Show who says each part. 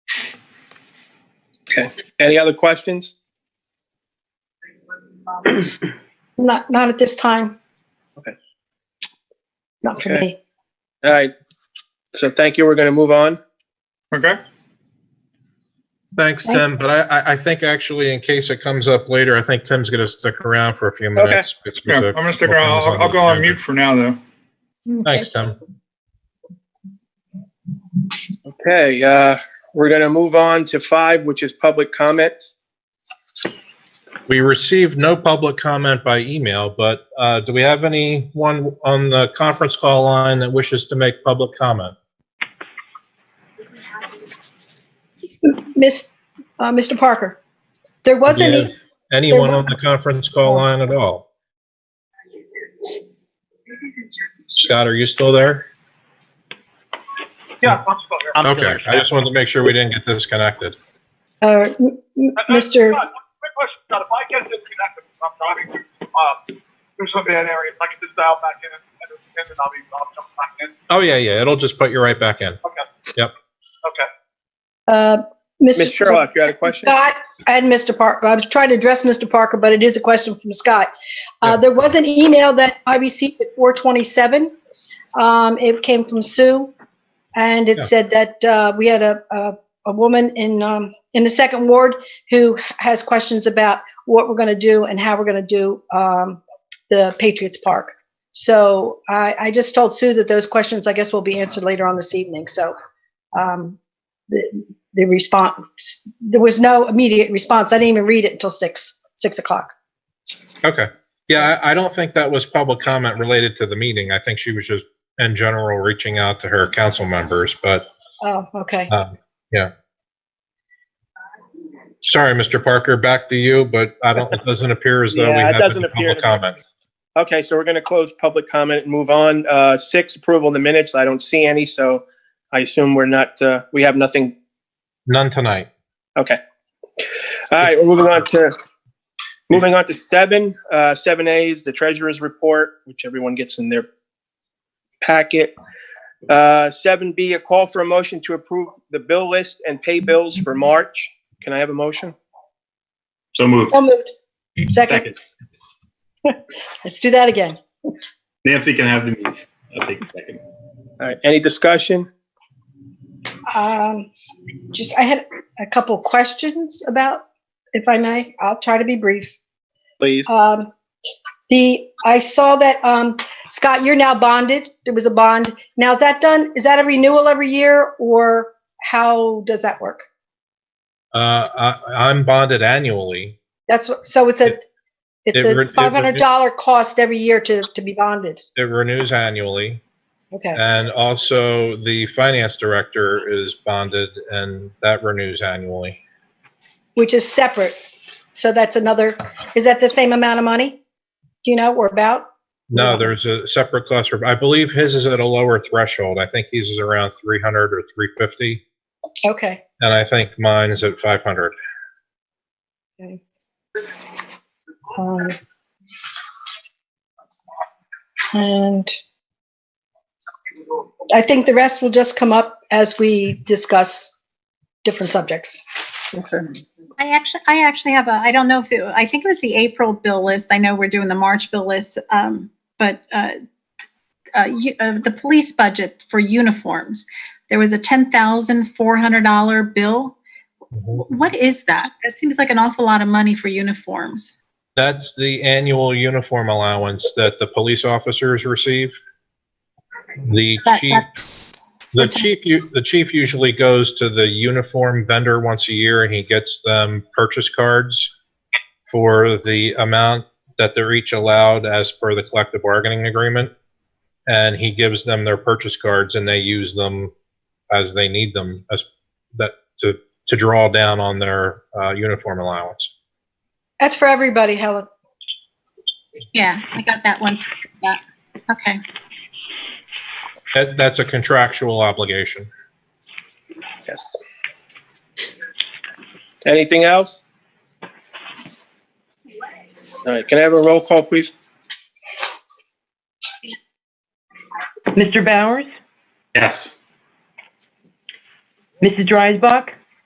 Speaker 1: Okay. Any other questions?
Speaker 2: Not, not at this time.
Speaker 1: Okay.
Speaker 2: Not for
Speaker 1: Okay.
Speaker 2: me.
Speaker 1: All right. So thank you. We're going to move on.
Speaker 3: Okay. Thanks,
Speaker 2: Thank-
Speaker 3: Tim, but I, I, I think actually in case it comes up later, I think Tim's gonna stick around for a few
Speaker 1: Okay.
Speaker 3: minutes. It's-
Speaker 4: Yeah,
Speaker 3: it's a-
Speaker 4: I'm gonna stick around. I'll, I'll go on mute for now, though.
Speaker 3: Thanks, Tim.
Speaker 1: Okay. Uh, we're going to move on to five, which is public comment.
Speaker 3: We received no public comment by email, but, uh, do we have anyone on the conference call line that wishes to make public comment?
Speaker 2: Miss, uh, Mr. Parker, there wasn't,
Speaker 3: Yeah.
Speaker 2: e-
Speaker 3: Anyone on the conference call line at all? Scott, are you still there?
Speaker 5: Yeah, I'm still here.
Speaker 3: Okay, I just wanted to make sure we didn't get disconnected.
Speaker 2: uh, m- m-
Speaker 5: Uh, uh,
Speaker 2: Mr.,
Speaker 5: Scott, Quick question, Scott, if I get disconnected, because I'm driving through, uh, through some bad areas, I can just dial back in and, and and I'll be, I'll jump back in.
Speaker 3: Oh, yeah, yeah, it'll just put you right back in.
Speaker 5: Okay.
Speaker 2: uh,
Speaker 1: Ms.
Speaker 2: Mr.
Speaker 1: Sherlock, you had a question?
Speaker 2: Scott and Mr. Parker, I was trying to address Mr. Parker, but it is a question from Scott. Uh,
Speaker 3: Yeah.
Speaker 2: there was an email that I received at four twenty-seven. Um, it came from Sue. And it
Speaker 3: Yeah.
Speaker 2: said that, uh, we had a, a, a woman in, um, in the second ward who has questions about what we're gonna do and how we're gonna do, um, the Patriots Park. So I, I just told Sue that those questions, I guess, will be answered later on this evening, so, um, the, the response, there was no immediate response. I didn't even read it until six, six o'clock.
Speaker 3: Okay. Yeah, I, I don't think that was public comment related to the meeting. I think she was just in general reaching out to her council members, but,
Speaker 2: Oh, okay.
Speaker 3: um, yeah. Sorry, Mr. Parker, back to you, but I don't, it doesn't appear as though we
Speaker 1: Yeah, it
Speaker 3: have
Speaker 1: doesn't
Speaker 3: any
Speaker 1: appear
Speaker 3: public
Speaker 1: to
Speaker 3: comment.
Speaker 1: Okay. So we're going to close public comment and move on. Uh, six, approval of the minutes. I don't see any. So I assume we're not, uh, we have nothing.
Speaker 3: None tonight.
Speaker 1: Okay. All right. We're moving on to, moving on to seven. Uh, seven A is the treasurer's report, which everyone gets in their packet. Uh, seven B, a call for a motion to approve the bill list and pay bills for March. Can I have a motion?
Speaker 6: So
Speaker 3: Um,
Speaker 6: moved.
Speaker 2: So moved. Second, let's do that again.
Speaker 6: Nancy can have the meeting. I'll take the second.
Speaker 1: All right. Any discussion?
Speaker 2: Um, just, I had a couple questions about, if I may, I'll try to be brief.
Speaker 1: Please.
Speaker 2: Um, the, I saw that, um, Scott, you're now bonded. There was a bond. Now is that done? Is that a renewal every year or how does that work?
Speaker 3: Uh, I, I'm bonded annually.
Speaker 2: That's, what- so it's a, it's
Speaker 3: it re- it
Speaker 2: a
Speaker 3: renew-
Speaker 2: five hundred dollar cost every year to, to be bonded.
Speaker 3: It renews annually.
Speaker 2: Okay.
Speaker 3: And also the finance director is bonded and that renews annually.
Speaker 2: which is separate. So that's another, is that the same amount of money? Do you know or about?
Speaker 3: No,
Speaker 2: Yeah.
Speaker 3: there's a separate cost. for- I believe his is at a lower threshold. I think his is around 300 or 350,
Speaker 2: Okay.
Speaker 3: and I think mine is at 500.
Speaker 2: Um, And I think the rest will just come up as we discuss different subjects.
Speaker 7: I actually, I actually have a, I don't know if it, I think it was the April bill list. I know we're doing the March bill list, um, but, uh, uh, you, uh, the police budget for uniforms, there was a ten thousand four hundred dollar bill. What is that? That seems like an awful lot of money for uniforms.
Speaker 3: That's the annual uniform allowance that the police officers receive. The
Speaker 7: That-
Speaker 3: chief, the
Speaker 7: that's-
Speaker 3: chief, u- the chief usually goes to the uniform vendor once a year and he gets them purchase cards for the amount that they're each allowed as per the collective bargaining agreement. And he gives them their purchase cards and they use them as they need them as that to, to draw down on their uh, uniform allowance.
Speaker 2: That's for everybody, Helen.
Speaker 7: Yeah, I got that one. Yeah. Okay.
Speaker 3: That, that's a contractual obligation.
Speaker 1: Yes. Anything else? All right, can I have a roll call, please?
Speaker 8: Mr. Bowers,
Speaker 6: Yes.
Speaker 8: Mrs. Dreisbach,